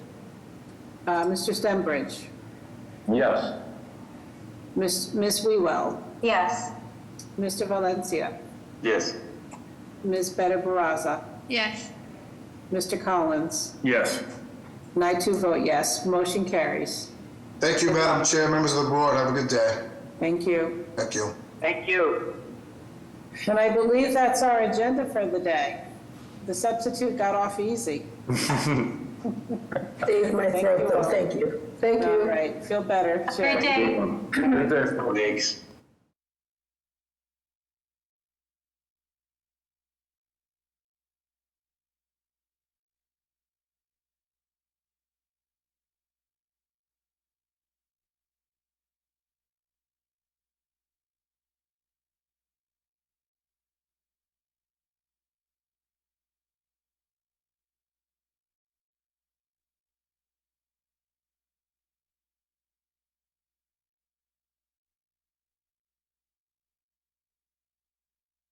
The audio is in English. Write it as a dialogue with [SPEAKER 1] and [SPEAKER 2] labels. [SPEAKER 1] Uh, Mr. Stenbridge?
[SPEAKER 2] Yes.
[SPEAKER 1] Ms. Ms. Wewell?
[SPEAKER 3] Yes.
[SPEAKER 1] Mr. Valencia?
[SPEAKER 2] Yes.
[SPEAKER 1] Ms. Better Baraza?
[SPEAKER 4] yes,
[SPEAKER 1] Mr. Collins?
[SPEAKER 2] Yes.
[SPEAKER 1] And I too vote yes. Motion carries.
[SPEAKER 5] Thank you, Madam Chair, members of the board. Have a good day.
[SPEAKER 1] Thank you.
[SPEAKER 5] Thank you.
[SPEAKER 6] Thank you.
[SPEAKER 1] And I believe that's our agenda for the day. The substitute got off easy.
[SPEAKER 7] Saved my throat, though, thank you. Thank
[SPEAKER 1] All
[SPEAKER 7] you.
[SPEAKER 1] right, feel better. Sure.
[SPEAKER 4] great day.
[SPEAKER 2] Good day.
[SPEAKER 6] Thanks.